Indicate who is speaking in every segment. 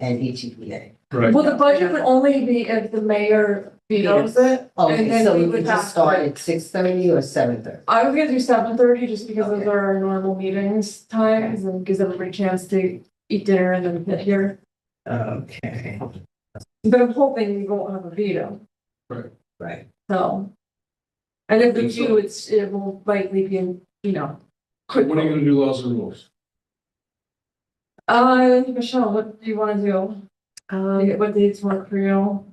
Speaker 1: and E ETPA.
Speaker 2: Right.
Speaker 3: Well, the budget would only be if the mayor vetoes it. And
Speaker 1: Oh, Okay,
Speaker 3: then
Speaker 1: so
Speaker 3: we
Speaker 1: you
Speaker 3: would
Speaker 1: can just
Speaker 3: have
Speaker 1: start
Speaker 3: to-
Speaker 1: at six thirty or seven thirty?
Speaker 3: I was gonna do seven thirty just because those
Speaker 1: Okay.
Speaker 3: are our normal meetings times and gives everybody a chance to eat dinner and then get here.
Speaker 1: Okay,
Speaker 3: But I'm hoping we won't have a veto,
Speaker 1: right.
Speaker 3: so. And if we
Speaker 2: Think so.
Speaker 3: do, it's, it will likely be, in, you know. quick.
Speaker 2: What are you gonna do, laws and rules?
Speaker 3: Uh, Michelle, what do you wanna do?
Speaker 4: Um,
Speaker 3: What dates work for you?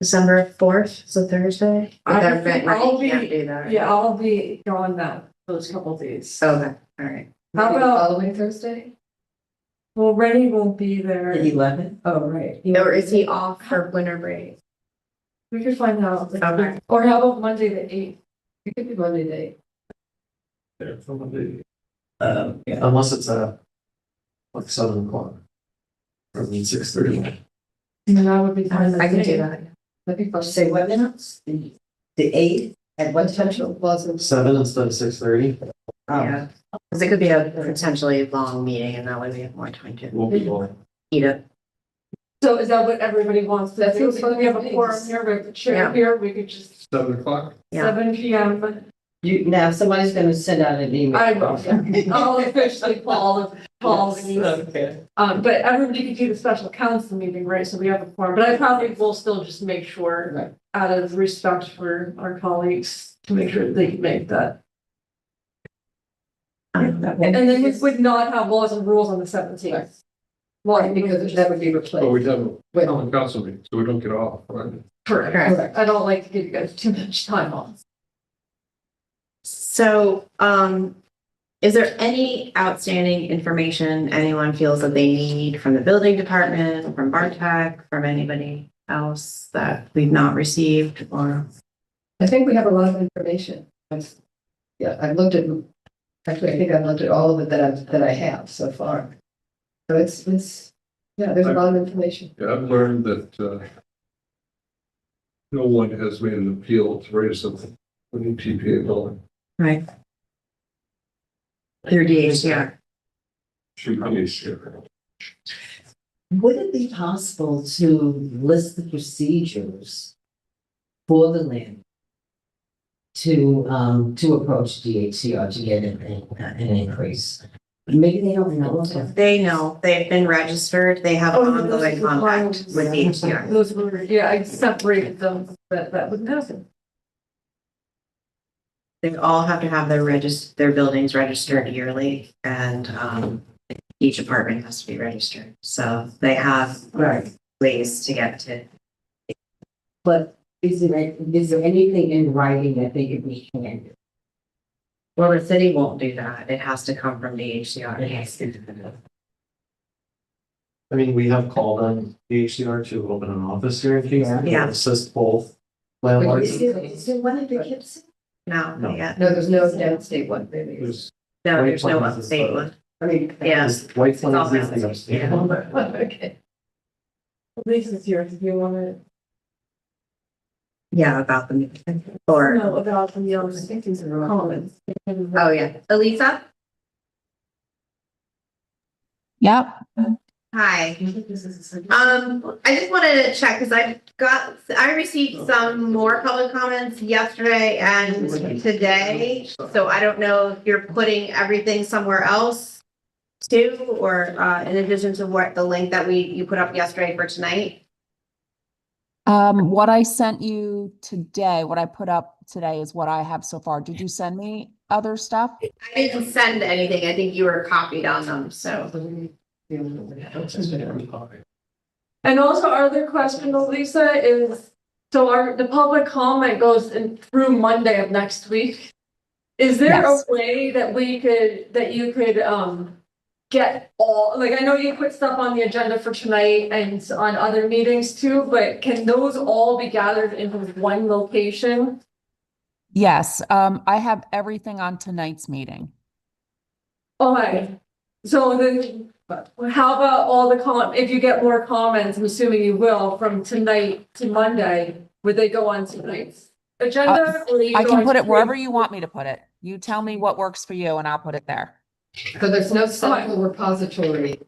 Speaker 4: December fourth, so Thursday.
Speaker 3: I
Speaker 4: That
Speaker 3: think
Speaker 4: meant, right,
Speaker 3: I'll
Speaker 4: you can't
Speaker 3: be-
Speaker 4: do that.
Speaker 3: Yeah, I'll be gone that, those couple days.
Speaker 4: Okay, all right.
Speaker 3: How
Speaker 1: Maybe the
Speaker 3: about-
Speaker 1: Following Thursday?
Speaker 3: Well, Rennie won't be there.
Speaker 1: The eleventh?
Speaker 3: Oh, right.
Speaker 4: Or is he off for winter break?
Speaker 3: We could find out.
Speaker 4: Okay.
Speaker 3: Or how about Monday the eighth? It could be Monday the eighth.
Speaker 2: There, somebody-
Speaker 1: Um, yeah.
Speaker 5: Unless it's a, like seven o'clock. Or I mean, six thirty.
Speaker 3: And that would be. fine.
Speaker 4: I can do that.
Speaker 1: Let me first say what minutes? The the eight at what time? Oh. Was
Speaker 5: Seven instead of six thirty.
Speaker 4: Yeah, because it could be a potentially long meeting and that way we have more time to
Speaker 5: We'll be all.
Speaker 4: eat it.
Speaker 3: So is that what everybody wants to
Speaker 1: That
Speaker 3: do?
Speaker 1: seems
Speaker 3: If We have a
Speaker 1: fine.
Speaker 3: forum here, we have the chair
Speaker 4: Yeah.
Speaker 3: here, we could just,
Speaker 2: Seven o'clock?
Speaker 4: Yeah.
Speaker 3: seven P M.
Speaker 1: You, now somebody's gonna send out an email.
Speaker 3: I will, I'll officially call, call these.
Speaker 1: Okay.
Speaker 3: Um, but everybody could do the special council meeting, right? So we have a forum, but I probably will still just make sure
Speaker 1: Right.
Speaker 3: out of respect for our colleagues to make sure they can make that.
Speaker 4: Um,
Speaker 3: And then we would not have laws and rules on the seventeenth.
Speaker 1: Right. Why? Because that would be
Speaker 2: But
Speaker 1: replaced.
Speaker 2: Oh, we have a
Speaker 1: Wait.
Speaker 2: common council meeting, so we don't get off, right?
Speaker 3: Correct.
Speaker 4: Correct.
Speaker 3: I don't like to give you guys too much time on.
Speaker 4: So, um, is there any outstanding information anyone feels that they need from the building department, from Bartek, from anybody else that we've not received or?
Speaker 1: I think we have a lot of information. I've- Yeah, I've looked at, actually, I think I've looked at all of it that I've, that I have so far. So it's, it's, yeah, there's a lot of information.
Speaker 2: Yeah, I've learned that, uh, no one has made an appeal to raise something with the TPA building.
Speaker 4: Right. Through DHCR.
Speaker 2: Should be sure.
Speaker 6: Would it be possible to list the procedures for the land? To, um, to approach DHCR to get an, an increase? Maybe they don't know about
Speaker 4: They know, they've been registered, they have
Speaker 3: Oh, those
Speaker 4: ongoing
Speaker 3: are the
Speaker 4: contact
Speaker 3: files.
Speaker 4: with DHCR.
Speaker 3: Those were, yeah, I separated them, but that wouldn't happen.
Speaker 4: They all have to have their regis, their buildings registered yearly and, um, each apartment has to be registered. So they have
Speaker 6: Right,
Speaker 4: ways to get to
Speaker 6: but is there, is there anything in writing that they could be handed?
Speaker 4: Well, the city won't do that. It has to come from DHCR.
Speaker 5: I mean, we have called on the HCR to open an office here in Kingston. to
Speaker 4: Yeah.
Speaker 5: Assist both
Speaker 1: Or
Speaker 6: Is
Speaker 5: landlords.
Speaker 6: there, is there one in Poughkeepsie?
Speaker 4: No,
Speaker 5: No.
Speaker 4: yeah.
Speaker 1: No, there's no downstate one, maybe.
Speaker 2: There's
Speaker 4: No,
Speaker 5: Right,
Speaker 4: there's no
Speaker 5: Plymouth is
Speaker 4: upstate
Speaker 5: the-
Speaker 4: one.
Speaker 1: I mean.
Speaker 4: Yeah.
Speaker 5: Is
Speaker 4: all
Speaker 5: White Plains is the
Speaker 4: mountains,
Speaker 5: upstate
Speaker 4: yeah.
Speaker 5: one.
Speaker 1: Okay.
Speaker 3: Lisa's here if you want
Speaker 4: Yeah, about the,
Speaker 3: to
Speaker 4: or,
Speaker 3: know about the young
Speaker 1: things are
Speaker 3: comments.
Speaker 4: oh, yeah. Elisa?
Speaker 7: Yep.
Speaker 4: Hi. Um, I just wanted to check, because I got, I received some more public comments yesterday and today. So I don't know if you're putting everything somewhere else too, or, uh, in addition to what, the link that we, you put up yesterday for tonight.
Speaker 7: Um, what I sent you today, what I put up today is what I have so far. Did you send me other stuff?
Speaker 4: I didn't send anything. I think you were copied on them, so.
Speaker 3: And also our other question, Lisa, is, so our, the public comment goes in through Monday of next week. Is there a
Speaker 7: Yes.
Speaker 3: way that we could, that you could, um, get all, like, I know you put stuff on the agenda for tonight and on other meetings too, but can those all be gathered into one location?
Speaker 7: Yes, um, I have everything on tonight's meeting.
Speaker 3: Okay, so then, how about all the com, if you get more comments, I'm assuming you will, from tonight to Monday, would they go on tonight's agenda? or you
Speaker 7: Uh, I
Speaker 3: go
Speaker 7: can
Speaker 3: on
Speaker 7: put it
Speaker 3: to-
Speaker 7: wherever you want me to put it. You tell me what works for you and I'll put it there.
Speaker 1: So there's no central repository